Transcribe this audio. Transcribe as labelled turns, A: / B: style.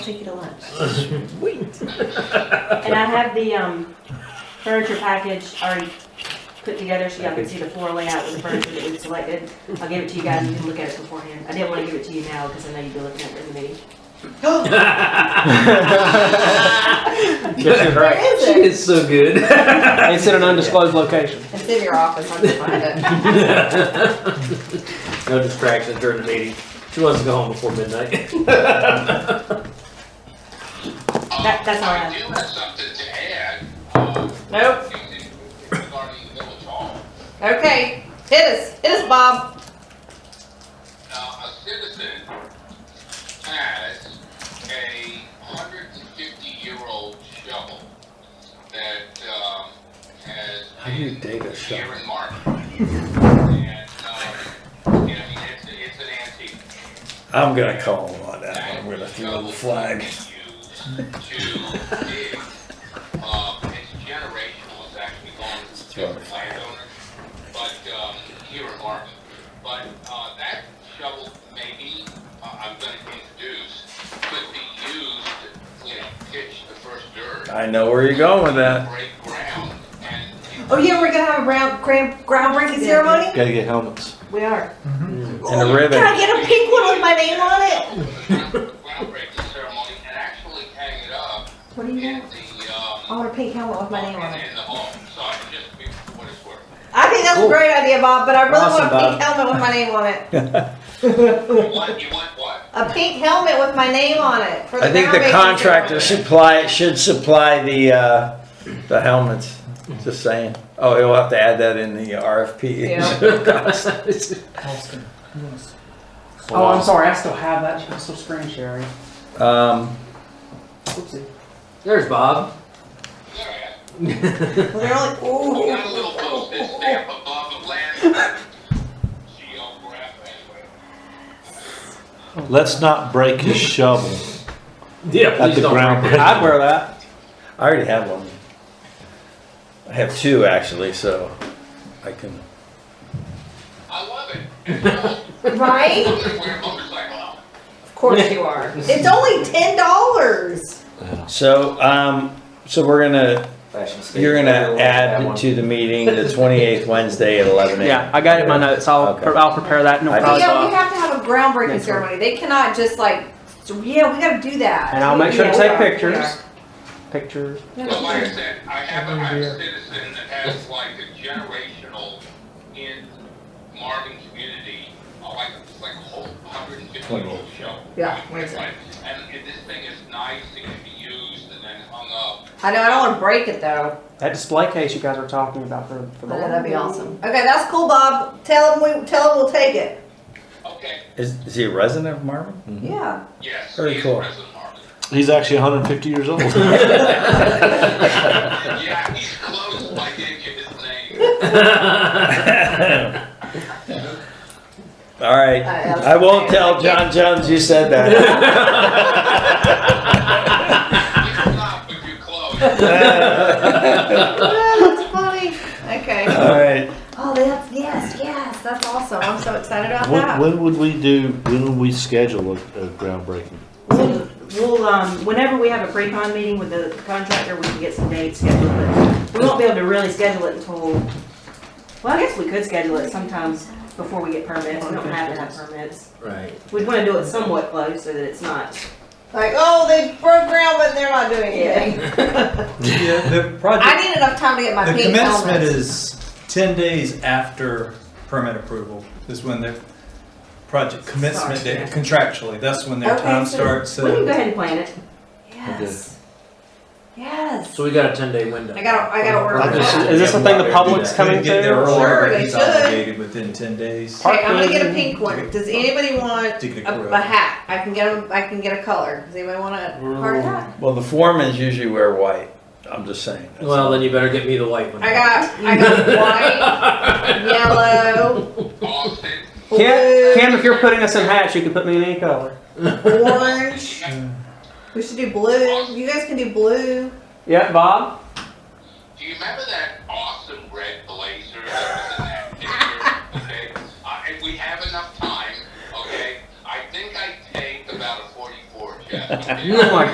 A: Take you to lunch.
B: Wait.
C: And I have the um, furniture package already put together, so y'all can see the floor layout with the furniture that we've selected. I'll give it to you guys, and you can look at it beforehand. I didn't want to give it to you now, because I know you'd be looking at it in the meeting.
B: Yes, you're right.
A: Where is
B: She
A: it?
B: is so good.
D: It's in an undisclosed location.
A: It's in your office, I can find it.
B: No distractions during the meeting. She wants to go home before midnight.
C: That- that's all I have.
E: do have something to add. um,
A: Nope,
E: Regarding Village Hall.
A: okay, hit us, hit us, Bob.
E: Now, a citizen has a hundred and fifty-year-old shovel that, um, has.
B: How do you date a
E: been
B: shovel?
E: Here in March. And, um, you know, it's, it's an antique.
F: I'm gonna call him on that one. We're gonna throw the flag.
E: But uh, that shovel maybe uh, I'm going to introduce could be used, you know, pitch the first dirt,
F: I know where you're going with that.
E: break ground, and
A: Oh, yeah, we're gonna have a round, grand, groundbreaking ceremony?
F: Gotta get helmets.
C: We are.
F: And a
A: Can I
F: ribbon.
A: get a pink one with my name on it?
E: groundbreaking ceremony and actually hang it up
A: What do you
E: in
A: want?
E: the um,
A: I want a pink helmet with my name on it.
E: In the hall, so I can just be what it's worth.
A: I think that's a
B: Cool.
A: great idea, Bob, but I really
B: Awesome,
A: want a pink helmet with my name on it.
E: You want, you want what?
A: A pink helmet with my name on it for the
F: I think the
A: groundbreaking
F: contractor
A: ceremony.
F: supply, should supply the, uh, the helmets. Just saying. Oh, he'll have to add that in the RFP.
G: Austin, who wants-
D: Oh, I'm sorry, I still have that, I'm still screen sharing.
F: Um,
D: Oopsie.
B: There's Bob.
E: Yeah,
A: Well, they're like,
E: We got a little
A: ooh.
E: post this stamp above the land. Geograph, anyway.
H: Let's not break his shovel
B: Yeah,
H: at
B: please
H: the
B: don't.
H: ground.
F: I'd wear that. I already have one. I have two actually, so I can.
E: I love it. And I'm
A: Right?
E: gonna wear a motorcycle helmet.
A: Of course you are. It's only ten dollars.
F: So, um, so we're gonna, you're gonna add to the meeting the twenty-eighth Wednesday at eleven AM.
D: Yeah, I got it in my notes, I'll,
F: Okay.
D: I'll prepare that, no
F: I just-
A: Yeah, we
D: problem.
A: have to have a groundbreaking
D: Next one.
A: ceremony. They cannot just like, so, yeah, we gotta do that.
D: And I'll make sure to
A: Yeah,
D: take
A: we are, we are.
D: pictures. Pictures.
E: But like I said, I have a, I have a citizen that has like a generational in Marvin community, uh, like, it's like a whole hundred and fifty year old show.
A: Yeah, wait a
E: It's
A: second.
E: like- And if this thing is nice, it can be used and then hung up.
A: I know, I don't wanna break it though.
D: That display case you guys were talking about for, for
A: I
D: the.
A: know, that'd be awesome. Okay, that's cool, Bob. Tell him we, tell him we'll take it.
E: Okay,
F: Is, is he a resident of Marvin?
D: Mm-hmm.
A: Yeah.
E: yes.
F: Very
E: he's
F: cool.
E: President Marvin.
H: He's actually 150 years old.
E: Yeah, he's close, but I didn't get his name.
F: All right. I won't tell John Jones you said that.
E: You're not, but you're close.
A: Ah, That's funny. Okay.
F: All right.
A: Oh, that's, yes, yes, that's awesome. I'm so excited about
H: when,
A: that.
H: when would we do? When would we schedule a, a groundbreaking?
C: We'll, we'll, um, whenever we have a pre-con meeting with the contractor, we can get some dates scheduled, but we won't be able to really schedule it until, well, I guess we could schedule it sometimes before we get permits. We don't have to have permits.
B: Right.
C: We'd want to do it somewhat close so that it's not
A: Like, oh, they broke ground, but they're not doing anything.
B: Yeah.
G: The
A: I
G: project,
A: need enough time to get my
G: the
A: pink
G: commencement
A: helmet.
G: is ten days after permit approval is when the project commencement
C: Starts,
G: date
C: yeah.
G: contractually, that's when their
A: Okay,
G: time
A: so-
G: starts.
C: We can go
G: So
C: ahead and plan it.
A: Yes. Yes.
B: So we got a 10 day window.
A: I gotta, I gotta
D: Like
A: work.
D: this-
A: it out.
D: Is this the thing the public's
G: they
D: coming
G: get there
D: to?
A: Sure,
G: earlier, but
A: they
G: he's
A: should.
G: obligated within ten days.
A: Okay, I'm gonna get a pink one. Does anybody want
G: to get
A: a,
G: approved.
A: a hat? I can get a, I can get a color. Does anybody want a hard hat?
F: Well, the foremans usually wear white. I'm just saying.
B: Well, then you better get me the white one.
A: I got I got white, yellow,
E: Austin,
D: Cam, Cam, if you're putting us in hats, you can put me in any color.
A: orange. We should do blue. You guys can do blue.
D: Yeah, Bob?
E: do you remember that awesome red blazer that was in that picture? Okay, uh, if we have enough time, okay, I think I take about a forty-four
I: Yeah.
E: Oh my